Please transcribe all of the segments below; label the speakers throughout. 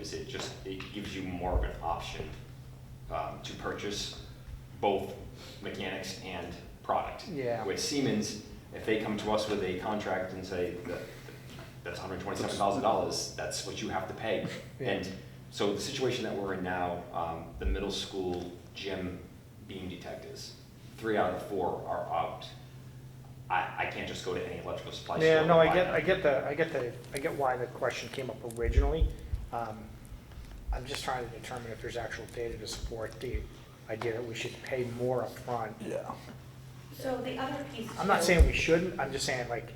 Speaker 1: is it just, it gives you more of an option um, to purchase both mechanics and product.
Speaker 2: Yeah.
Speaker 1: With Siemens, if they come to us with a contract and say that that's hundred twenty-seven thousand dollars, that's what you have to pay.
Speaker 2: Yeah.
Speaker 1: And so the situation that we're in now, um, the middle school gym beam detectors, three out of four are out. I, I can't just go to any electrical supply store.
Speaker 2: Yeah,
Speaker 1: and
Speaker 2: no, I
Speaker 1: buy
Speaker 2: get,
Speaker 1: them.
Speaker 2: I get the, I get the, I get why the question came up originally. Um, I'm just trying to determine if there's actual data to support the idea that we should pay more upfront. Yeah.
Speaker 3: So the other piece.
Speaker 2: I'm not
Speaker 3: too-
Speaker 2: saying we shouldn't, I'm just saying like,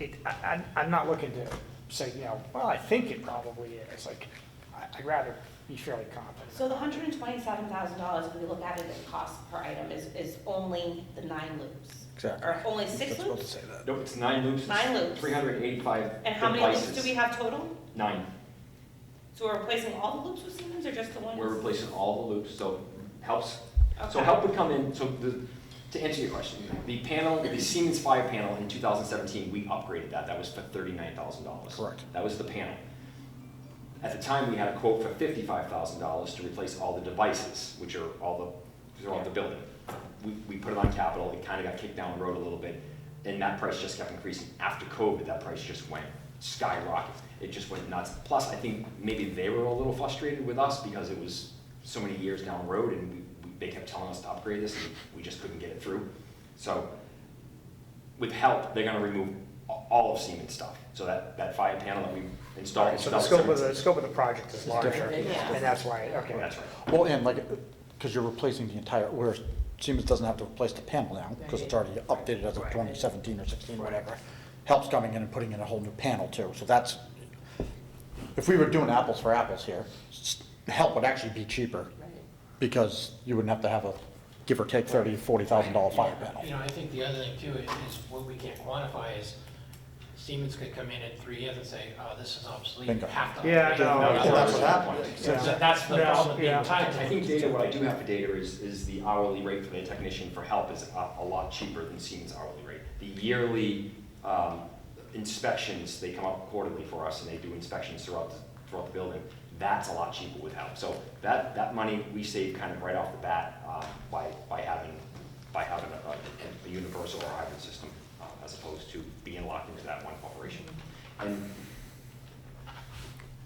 Speaker 2: it, I, I'm- I'm not looking to say, you know, well, I think it probably is, like, I- I'd rather be fairly confident.
Speaker 3: So the hundred and twenty-seven thousand dollars, if we look at it as cost per item, is, is only the nine loops.
Speaker 4: Exactly.
Speaker 3: Or only six
Speaker 4: Just about to
Speaker 3: loops?
Speaker 4: say that.
Speaker 1: No, it's nine loops.
Speaker 3: Nine loops.
Speaker 1: Three hundred eighty-five
Speaker 3: And how many loops do we have total?
Speaker 1: Nine.
Speaker 3: So we're replacing all the loops with Siemens or just the ones?
Speaker 1: We're replacing all the loops, so helps. So
Speaker 3: Okay.
Speaker 1: help would come in, so the, to answer your question, the panel, the Siemens Fire panel in two thousand seventeen, we upgraded that. That was for thirty-nine thousand dollars.
Speaker 4: Correct.
Speaker 1: That was the panel. At the time, we had a quote for fifty-five thousand dollars to replace all the devices, which are all the, throughout the building. We, we put it on capital, it kind of got kicked down the road a little bit, and that price just kept increasing. After COVID, that price just went skyrocket. It just went nuts. Plus, I think maybe they were a little frustrated with us because it was so many years down the road and we, we- they kept telling us to upgrade this and we just couldn't get it through. So with help, they're gonna remove a- all of Siemens stuff. So that, that fire panel that we installed. in
Speaker 2: So the scope of
Speaker 1: 2017
Speaker 2: the, the scope of the project is larger,
Speaker 4: different.
Speaker 3: Yeah.
Speaker 2: and that's why, okay.
Speaker 1: That's right.
Speaker 4: Well, and like, because you're replacing the entire, where Siemens doesn't have to replace the panel now, because it's already updated as of
Speaker 2: Right.
Speaker 4: twenty seventeen or sixteen, whatever. Help's coming in and putting in a whole new panel too, so that's, if we were doing apples for apples here, s- help would actually be cheaper, because you wouldn't have to have a give or take thirty, forty thousand dollar fire
Speaker 5: Yeah, You
Speaker 4: panel.
Speaker 5: know, I think the other thing too is, is what we can't quantify is Siemens could come in in three years and say, oh, this is obsolete, you
Speaker 4: Bingo.
Speaker 5: have to.
Speaker 2: Yeah,
Speaker 5: upgrade
Speaker 2: no,
Speaker 5: it."
Speaker 4: Well, that's what happened.
Speaker 2: Yeah.
Speaker 5: So That's the
Speaker 2: No,
Speaker 5: problem, the
Speaker 2: yeah.
Speaker 5: entire.
Speaker 1: I think data, what I do have for data is, is the hourly rate for the technician for help is a, a lot cheaper than Siemens hourly rate. The yearly, um, inspections, they come up quarterly for us and they do inspections throughout, the- throughout the building. That's a lot cheaper with help. So that, that money we save kind of right off the bat, uh, by, by having, by having a, a- a universal or hybrid system uh, as opposed to being locked into that one corporation. And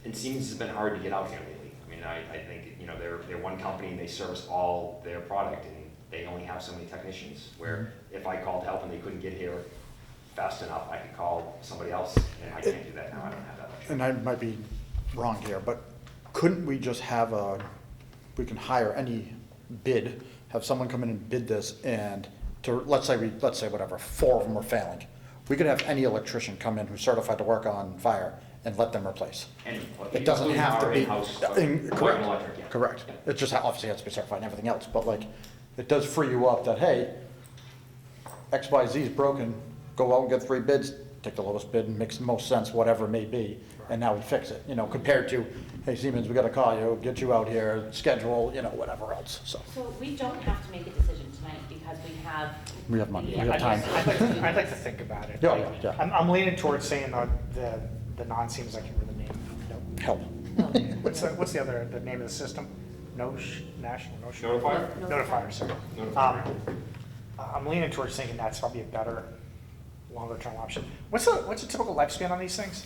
Speaker 1: and Siemens has been hard to get out here lately. I mean, I, I think, you know, they're, they're one company and they service all their product and they only have so many technicians. Where
Speaker 4: Mm-hmm.
Speaker 1: if I called help and they couldn't get here fast enough, I could call somebody else and I can't do that now. I don't have that luxury.
Speaker 4: and I might be wrong here, but couldn't we just have a, we can hire any bid, have someone come in and bid this and to, let's say we, let's say whatever, four of them are failing. We could have any electrician come in who's certified to work on fire and let them replace.
Speaker 1: And what-
Speaker 4: It doesn't
Speaker 1: including
Speaker 4: have to
Speaker 1: our
Speaker 4: be.
Speaker 1: in-house,
Speaker 4: uh, in-
Speaker 1: like,
Speaker 4: Correct.
Speaker 1: Warren Electric, yeah.
Speaker 4: Correct.
Speaker 1: Yeah.
Speaker 4: It just ha- obviously has to be certified and everything else, but like, it does free you up that, hey, X, Y, Z is broken, go out and get three bids, take the lowest bid and makes the most sense, whatever it may be, and now we fix it, you know, compared to, hey, Siemens, we gotta call you, get you out here, schedule, you know, whatever else, so.
Speaker 3: So we don't have to make a decision tonight because we have.
Speaker 4: We have money, we
Speaker 3: the-
Speaker 4: have time.
Speaker 2: I'd like, to- I'd like to think about it.
Speaker 4: Yeah, yeah, yeah.
Speaker 2: I'm, I'm leaning towards saying uh, the, the non-Siemens, I can't remember the name. No.
Speaker 4: Help.
Speaker 2: What's, the- what's the other, the name of the system? Nosh, National, Nosh?
Speaker 1: Notifier?
Speaker 2: Notifier, sorry.
Speaker 1: Notifier.
Speaker 2: Um, I- I'm leaning towards thinking that's probably a better, longer-term option. What's the, what's the typical lifespan on these things?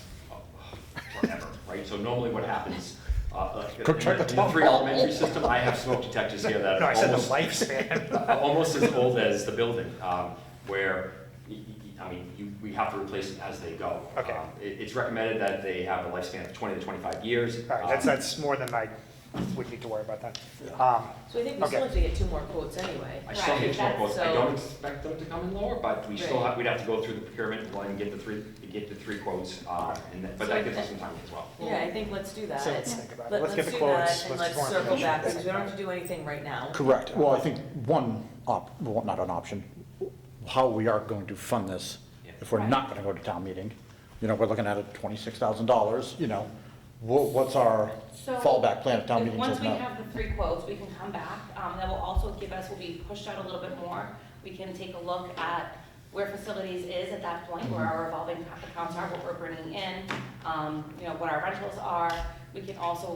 Speaker 1: forever, right? So normally what happens, uh, like, in
Speaker 4: Go check the
Speaker 1: the- in the
Speaker 4: top
Speaker 1: three
Speaker 4: wall.
Speaker 1: elementary system, I have smoke detectors here that
Speaker 2: No, I
Speaker 1: are
Speaker 2: said the
Speaker 1: almost
Speaker 2: lifespan.
Speaker 1: Uh, almost as old as the building, um, where, y- y- I mean, you, we have to replace it as they go.
Speaker 2: Okay.
Speaker 1: Um, It, it's recommended that they have a lifespan of twenty to twenty-five years.
Speaker 2: All right, that's,
Speaker 1: Um,
Speaker 2: that's more than I would need to worry about then. Um,
Speaker 6: So I think we still
Speaker 2: Okay.
Speaker 6: have to get two more quotes anyway.
Speaker 1: I still
Speaker 3: Right,
Speaker 1: get
Speaker 3: that's
Speaker 1: quotes, I
Speaker 6: so-
Speaker 1: don't expect them to come in lower, but we still
Speaker 6: Right.
Speaker 1: have, we'd have to go through the procurement and get the three, get the three quotes, um, and, that- but that gives us some time as well.
Speaker 6: Yeah, I think let's do that.
Speaker 2: So let's think about it.
Speaker 6: Let-
Speaker 2: Let's get the
Speaker 6: do that
Speaker 2: quotes.
Speaker 6: And
Speaker 2: Let's get
Speaker 6: let's
Speaker 2: more
Speaker 6: circle
Speaker 2: information.
Speaker 6: back, because we don't have to do anything right now.
Speaker 4: Correct. Well, I think one op, well, not an option, how we are going to fund this, if we're not gonna go to town meeting, you know, we're looking at it twenty-six thousand dollars, you know, wha- what's our
Speaker 3: So
Speaker 4: fallback plan if town
Speaker 3: if-
Speaker 4: meeting
Speaker 3: Once
Speaker 4: says
Speaker 3: we
Speaker 4: no?
Speaker 3: have the three quotes, we can come back. Um, that will also give us, will be pushed out a little bit more. We can take a look at where facilities is at that point, where our revolving accounts are, what we're bringing in, um, you know, what our rentals are. We can also